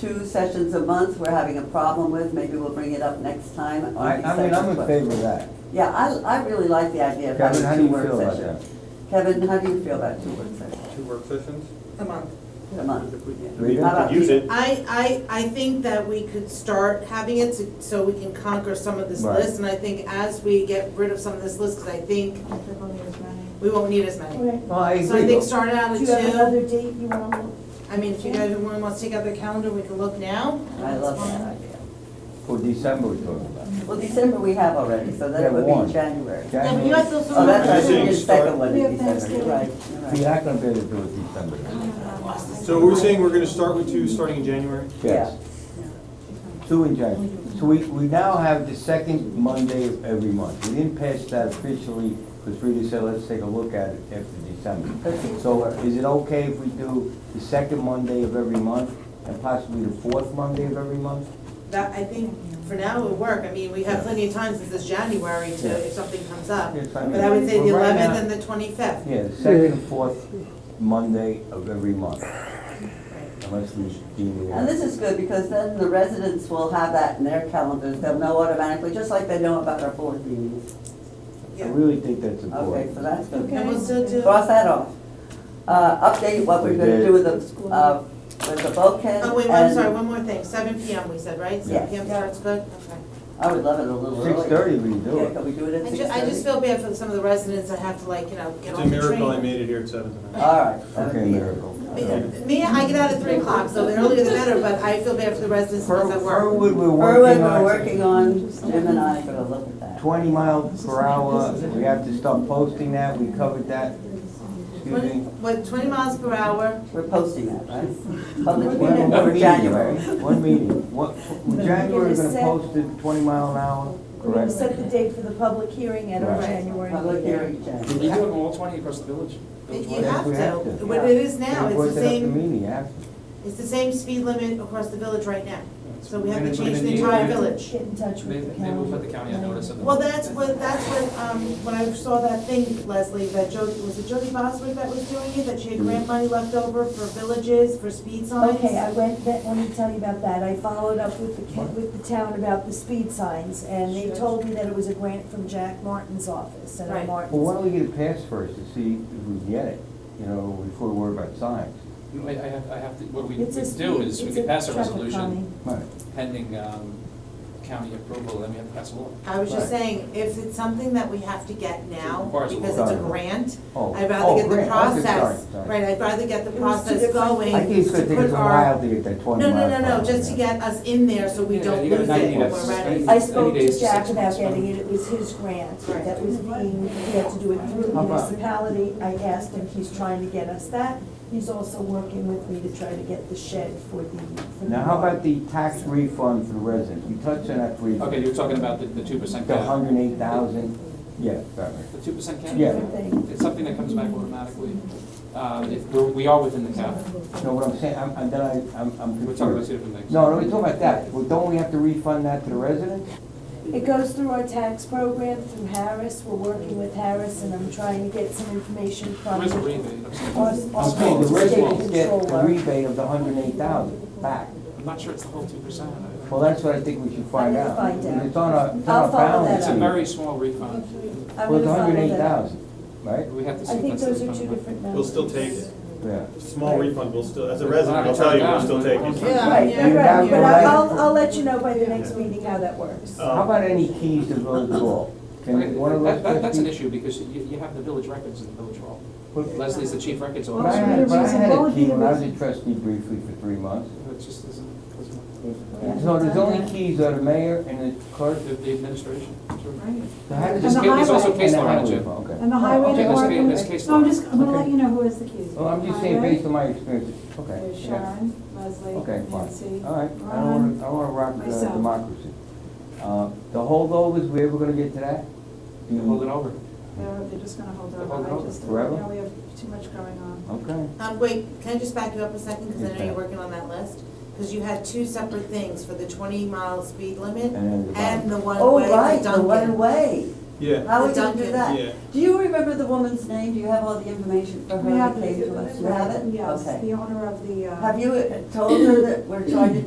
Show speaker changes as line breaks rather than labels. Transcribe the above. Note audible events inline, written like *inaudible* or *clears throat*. two sessions a month we're having a problem with, maybe we'll bring it up next time. It
I,
might be
I mean, I'm
session,
in
but-
favor of that.
Yeah, I, I really like the idea of
Kevin, how do
having two
you
work
feel about that?
sessions. Kevin, how do you feel about two work sessions
Two work sessions?
a month.
a month?
I
We
mean,
don't-
we could use it.
I, I, I think that we could start having it so- so we can conquer some of this
Right.
list. And I think as we get rid of some of this list, because I think we won't need as many.
Okay.
Well, I
So Oh, I
agree.
think start out
Do
at
you have another
two.
date you want to look?
I mean, if you guys, everyone wants to take out their calendar, we can look now.
I love that idea.
For December we're talking about.
Well, December we have already, so
Yeah,
that would
one.
be January.
Yeah, but you guys
January-
also-
Oh, that's
I
right,
think
your
we
second
start-
one
We
in
have
December, you're
Thanksgiving.
right, you're right.
You're not gonna be able to do it December.
So we're saying we're gonna start with two, starting in January?
Yes, two in January. So we, we now have the second Monday of every month. We didn't pass that officially, because Rita said, let's take a look at it after December.
That seems to
So uh,
work.
is it okay if we do the second Monday of every month and possibly the fourth Monday of every month?
That, I think, for now it'll work. I mean, we have plenty of time since it's January
Yeah.
to, if something comes up.
Yes, I mean,
But I would say the
well, right now-
eleventh and the twenty-fifth.
Yeah, the second and fourth Monday of every month, unless we deem it.
And this is good, because then the residents will have that in their calendars, they'll know automatically, just like they know about our board meetings.
I really think that's
Okay,
important.
so that's good.
And we'll still do.
Cross that off. Uh, update what we're gonna do with the, uh, with the bulkhead.
Oh, wait, I'm
and-
sorry, one more thing, seven PM we said, right?
Yeah.
Seven PM starts good, okay.
I would love it a little earlier.
Six thirty we do
Yeah,
it.
can we do it at
I
six
ju-
thirty?
I just feel bad for some of the residents that have to like, you know, get
It's a
on the train.
miracle I made it here at seven tonight.
All right. that would
Okay,
be it.
miracle.
Me- Me, I get out at three o'clock, so the earlier the better, but I feel bad for the residents because I
Fir-
work.
Firwood, we're
Berwin,
working
we're
on
working on, Jim and I are gonna look at that.
twenty miles per hour, we have to start posting that, we covered that. Excuse
Twenty-
me.
What, twenty miles per hour?
We're posting that,
*laughs*
right? Public
One-
meeting
one
for
meeting,
January.
right? One meeting, what, January, we're gonna post it twenty mile an hour,
We're going
correct?
to set the date for the public hearing at our
Right.
January meeting.
Public hearing,
Can you do it
January.
in all twenty across the village? Village
You
wide?
Yes,
have
we have
to,
to.
what it is now,
They
it's
posted
the
up
same,
meeting after.
it's the same speed limit across the village right now. So we have
We're
to
gonna-
change
we're
the
gonna
entire
need-
village.
Get in touch
Maybe,
with the
maybe we'll put
county.
the county on notice of the.
Well, that's what, that's what, um, when I saw that thing, Leslie, that Jody, was it Jody Boswick that was doing it, that she had grant money left over for villages, for speed signs?
Okay, I went, that- let me tell you about that. I followed up with the, ca- with the town about the speed signs, and they told me that it was a grant from Jack Martin's office, and
Right.
Martin's.
Well, why don't we get a pass first to see if we can get it, you know, before we worry about signs?
Wait, I have, I have to, what we we
It's a
do
speed-
is we
it's
could
a
pass a
traffic
resolution
calming.
Right.
pending, um, county approval, then we have to pass a law.
Uh,
I was just
Right.
saying, if it's something that we have to get now,
Requires a
because it's a
warrant.
grant,
Oh,
I'd
oh,
rather get the
grant. Okay, sorry,
process,
sorry.
right, I'd rather get the
It was two
process
different-
going.
I think it's
to
gonna take
put
us a
our-
while to get that twenty
No,
mile.
no, no,
an
no,
hour.
just to get us in there so we
Yeah,
don't
you gotta
lose
not
it
need
when
us.
we're ready.
I
Any
spoke
days
to
to
Jack
six
about
months,
getting
right?
it, it was his grant
Right.
that was being, he had to do it through the
How about-
municipality. I asked him, he's trying to get us that. He's also working with me to try to get the shed for the. for the
Now, how about the tax refund for the residents? We touched on that briefly.
Okay, you were talking about the, the two percent
The
cap.
hundred and eight thousand, yeah, sorry.
The two percent cap?
Yeah.
thing.
It's something that comes back automatically. Uh, if, we're, we are within the cap.
No, what I'm saying, I'm, I'm, then I- I'm, I'm
We're talking about
confused.
two different things.
No, no, we're talking about that. Well, don't we have to refund that to the residents?
It goes through our tax program through Harris. We're working with Harris and I'm trying to get some information from.
There is a rebate of some-
our-
I'm
our
saying the
state
residents get the
controller.
rebate of the hundred and eight thousand back.
I'm not sure it's the whole two percent.
Well, that's what I think we should find
I'm
out.
gonna find out.
It's on our, it's on
I'll
our
follow that
balance
It's a
up.
sheet.
very small refund.
I'm
Well, it's
gonna follow
hundred and eight
that up.
thousand, right?
We have
I
to
think
sequence
those
it.
are two different numbers.
We'll still take it.
Yeah.
Small refund, we'll still, as a resident, I'll tell you, we'll still take it.
Yeah,
Right,
yeah,
you're
yeah.
right, but I- I'll, I'll let you know by the next meeting how that works.
Uh,
How about any keys to Village Hall? Can one of those?
That, that, that's an
trustees-
issue because you, you have the village records in the village hall.
But-
Leslie's the chief records
But I
officer.
had, but I had
Well,
a key when I was
it's
a trustee briefly for three months.
It just isn't, doesn't,
So there's only keys are the mayor and the clerk.
the, the administration. sure.
So how does
And
this
the
get-
There's also
highway.
case
and the
law on it,
highway
Jim.
fund, Okay.
And the highway
Okay, there's ca-
department.
there's case
No, I'm
law.
just, I'm gonna
Okay.
let you know who is the accused.
Well, I'm just saying
Highway,
based on my experience, okay.
There's
yeah.
Sharon, Leslie,
Okay,
Nancy.
fine. All right, I don't
Ron.
want to, I don't want to rock the
myself.
democracy. Uh, The holdovers, we ever going to get to that? Do you-
Hold it over.
They're, they're just gonna hold
They're holding
over.
over
I just, you
forever?
know, we have too much going on.
Okay.
Um, wait, can I just back you up a second, because I know
Okay.
you're working on that list? Because you had two separate things for the twenty mile
And
speed
uh, then
limit
the
and
bottom.
the one
Oh,
way
right,
to
the one
Dunkin'.
way.
Yeah,
How are we
The
gonna do
Dunkin'.
Yeah.
that? Do you remember the woman's name? Do you have all the information for
We
her
have
that
the-
came to us? You have it?
Yes,
Okay.
the owner of the, uh.
*clears throat*
Have you uh, told her that we're trying to